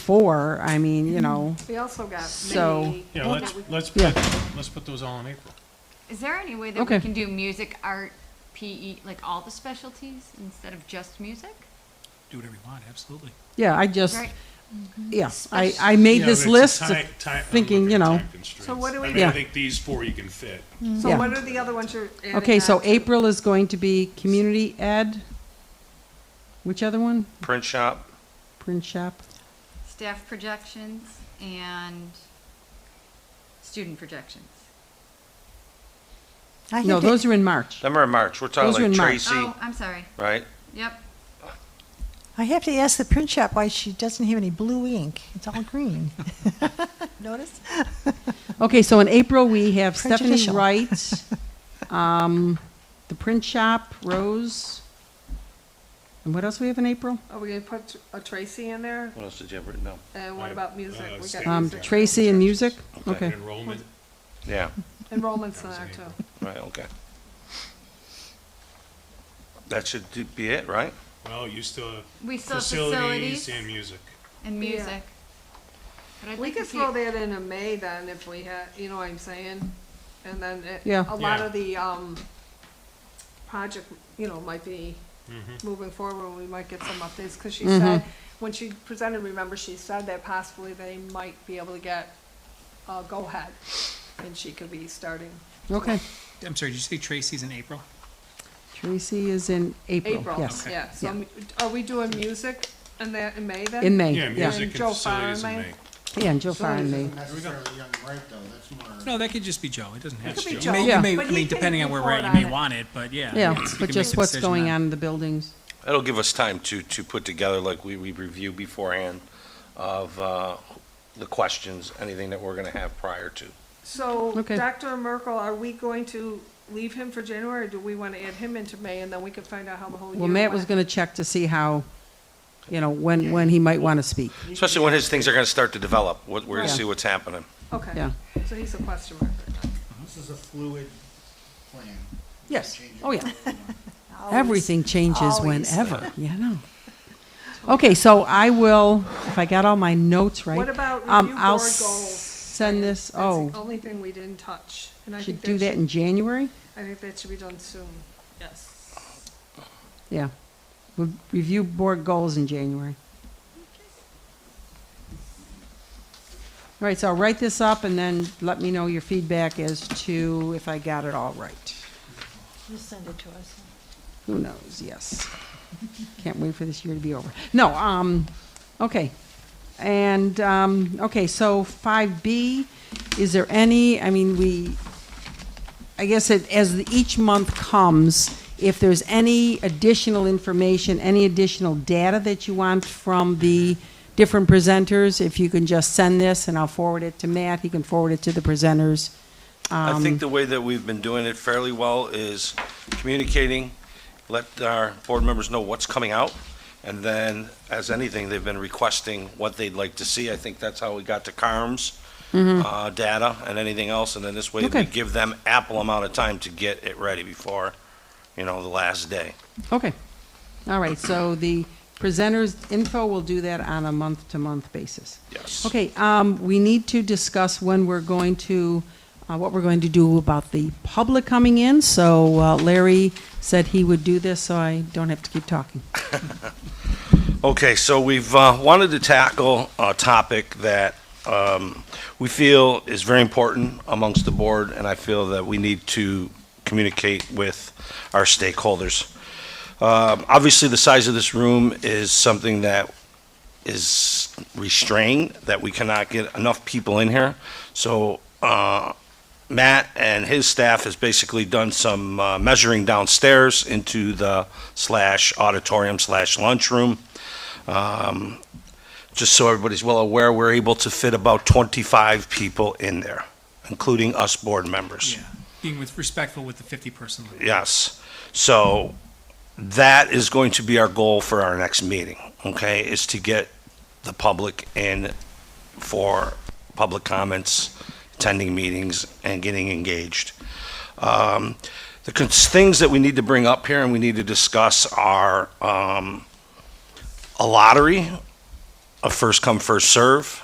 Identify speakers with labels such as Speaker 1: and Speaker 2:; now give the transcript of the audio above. Speaker 1: four, I mean, you know,
Speaker 2: We also got
Speaker 1: So-
Speaker 2: maybe.
Speaker 3: Yeah, let's, let's,
Speaker 1: Yeah.
Speaker 3: put- let's put those all in April.
Speaker 4: Is there any way that
Speaker 1: Okay.
Speaker 4: we can do music, art, PE, like all the specialties instead of just music?
Speaker 5: Do whatever you want, absolutely.
Speaker 1: yeah, I just,
Speaker 4: Right.
Speaker 1: yeah, I, I made
Speaker 3: Yeah,
Speaker 1: this
Speaker 3: but it's
Speaker 1: list
Speaker 3: a
Speaker 1: of
Speaker 3: ti- ti- I'm
Speaker 1: thinking,
Speaker 3: looking
Speaker 1: you
Speaker 3: at
Speaker 1: know.
Speaker 3: time constraints.
Speaker 2: So what do we
Speaker 3: I
Speaker 2: do?
Speaker 3: mean, I think these four you can fit.
Speaker 2: So
Speaker 1: Yeah.
Speaker 2: what are the other ones you're adding
Speaker 1: Okay, so
Speaker 2: on to?
Speaker 1: April is going to be community ed. Which other one?
Speaker 6: Print shop,
Speaker 1: Print shop,
Speaker 4: Staff projections and student projections.
Speaker 7: I
Speaker 1: no,
Speaker 7: think it-
Speaker 1: those are in March.
Speaker 6: them are in March, we're talking
Speaker 1: Those are in
Speaker 6: like
Speaker 1: March.
Speaker 6: Tracy,
Speaker 4: Oh, I'm sorry.
Speaker 6: right?
Speaker 4: Yep.
Speaker 7: I have to ask the print shop why she doesn't have any blue ink. It's all green. Notice?
Speaker 1: Okay, so in April, we have Stephanie
Speaker 7: Prejudicial.
Speaker 1: Wright, um, the print shop, Rose. And what else we have in April?
Speaker 2: Are we gonna put a Tracy in there?
Speaker 6: What else did you have written down?
Speaker 2: And what
Speaker 3: Uh,
Speaker 2: about music?
Speaker 3: uh,
Speaker 2: We
Speaker 3: state.
Speaker 2: got
Speaker 1: Um,
Speaker 2: music.
Speaker 1: Tracy and music,
Speaker 6: Okay.
Speaker 1: okay.
Speaker 3: Enrollment,
Speaker 6: Yeah,
Speaker 2: Enrollment's in there too.
Speaker 6: right, okay. That should do- be it, right?
Speaker 3: well, you still have
Speaker 4: We still have
Speaker 3: facilities
Speaker 4: facilities
Speaker 3: and music.
Speaker 4: and
Speaker 2: Yeah.
Speaker 4: music. But I'd
Speaker 2: We
Speaker 4: like to
Speaker 2: could
Speaker 4: see-
Speaker 2: throw that in in May then if we had, you know what I'm saying? And then it-
Speaker 1: Yeah.
Speaker 2: a lot
Speaker 3: Yeah.
Speaker 2: of the, um, project, you know, might be
Speaker 3: Mm-hmm.
Speaker 2: moving forward, we might get some updates. Cause she
Speaker 1: Mm-hmm.
Speaker 2: said, when she presented, remember, she said that possibly they might be able to get a go-ahead. And she could be starting
Speaker 1: Okay,
Speaker 5: I'm sorry, did you say Tracy's in April?
Speaker 1: Tracy is in April,
Speaker 2: April,
Speaker 1: yes.
Speaker 2: yeah. So
Speaker 1: Yeah.
Speaker 2: m- are we doing music in that, in May then?
Speaker 1: In May,
Speaker 3: Yeah,
Speaker 1: yeah.
Speaker 3: music and
Speaker 2: Joe
Speaker 3: facilities in
Speaker 2: Fahrenheit.
Speaker 3: May.
Speaker 1: Yeah, and Jill Farr and
Speaker 8: Facilities
Speaker 1: me.
Speaker 8: isn't necessarily on the right, though, that's more.
Speaker 5: No, that could just be Joe, it doesn't have
Speaker 3: That's
Speaker 5: to. be
Speaker 3: Joe.
Speaker 5: You may-
Speaker 1: Yeah.
Speaker 5: You may,
Speaker 2: But
Speaker 5: I
Speaker 2: he
Speaker 5: mean,
Speaker 2: can
Speaker 5: depending on where we're at, you
Speaker 2: report
Speaker 5: may
Speaker 2: on it.
Speaker 5: want it, but yeah.
Speaker 1: Yeah,
Speaker 5: it's- you can
Speaker 1: but
Speaker 5: make
Speaker 1: just
Speaker 5: the
Speaker 1: what's
Speaker 5: decision
Speaker 1: going on in the buildings.
Speaker 6: That'll give us time to, to put together, like we, we review beforehand of, uh, the questions, anything that we're gonna have prior to.
Speaker 2: So,
Speaker 1: Okay.
Speaker 2: Dr. Merkel, are we going to leave him for January, or do we want to add him into May, and then we can find out how the whole year
Speaker 1: Well,
Speaker 2: went?
Speaker 1: Matt was gonna check to see how, you know, when, when he might wanna speak.
Speaker 6: Especially when his things are gonna start to develop, what, we're gonna
Speaker 1: Right.
Speaker 6: see what's happening.
Speaker 2: Okay,
Speaker 1: Yeah.
Speaker 2: so he's a question mark.
Speaker 8: This is a fluid plan. You
Speaker 1: Yes.
Speaker 8: can change it
Speaker 1: Oh, yeah.
Speaker 8: however you want.
Speaker 7: Always.
Speaker 1: Everything changes
Speaker 7: always.
Speaker 1: whenever, you know. Okay, so I will, if I got all my notes right.
Speaker 2: What about
Speaker 1: um,
Speaker 2: review
Speaker 1: I'll
Speaker 2: board
Speaker 1: s-
Speaker 2: goals?
Speaker 1: Send this,
Speaker 2: That's the
Speaker 1: oh,
Speaker 2: only thing we didn't touch, and I
Speaker 1: should
Speaker 2: think
Speaker 1: do
Speaker 2: that
Speaker 1: that
Speaker 2: should,
Speaker 1: in January?
Speaker 2: I think that should be done soon. Yes.
Speaker 1: Yeah. We'll Review board goals in January. All right, so I'll write this up and then let me know your feedback as to if I got it all right.
Speaker 7: You send it to us.
Speaker 1: Who knows? Yes. Can't wait for this year to be over. No, um, okay. And, um, okay, so five B, is there any, I mean, we, I guess it, as the- each month comes, if there's any additional information, any additional data that you want from the different presenters, if you can just send this and I'll forward it to Matt, he can forward it to the presenters.
Speaker 6: I
Speaker 1: Um,
Speaker 6: think the way that we've been doing it fairly well is communicating, let our board members know what's coming out, and then, as anything, they've been requesting what they'd like to see. I think that's how we got to CARM's uh, data and anything else, and then this way
Speaker 1: Mm-hmm. Okay.
Speaker 6: we give them ample amount of time to get it ready before, you know, the last day.
Speaker 1: Okay. All right, so the presenters' info will do that on a month-to-month basis.
Speaker 6: Yes.
Speaker 1: Okay, um, we need to discuss when we're going to, uh, what we're going to do about the public coming in. So uh, Larry said he would do this, so I don't have to keep talking.
Speaker 6: Okay, so we've uh, wanted to tackle a topic that um, we feel is very important amongst the board, and I feel that we need to communicate with our stakeholders. Um, Obviously, the size of this room is something that is restrained, that we cannot get enough people in here. So uh, Matt and his staff has basically done some uh, measuring downstairs into the slash auditorium slash lunchroom. Um, Just so everybody's well aware, we're able to fit about 25 people in there, including us board members.
Speaker 5: Yeah, being with, respectful with the fifty-person limit.
Speaker 6: Yes. So that is going to be our goal for our next meeting, okay, is to get the public in for public comments, attending meetings, and getting engaged. Um, The cons- things that we need to bring up here and we need to discuss are um, a lottery a first come, first serve.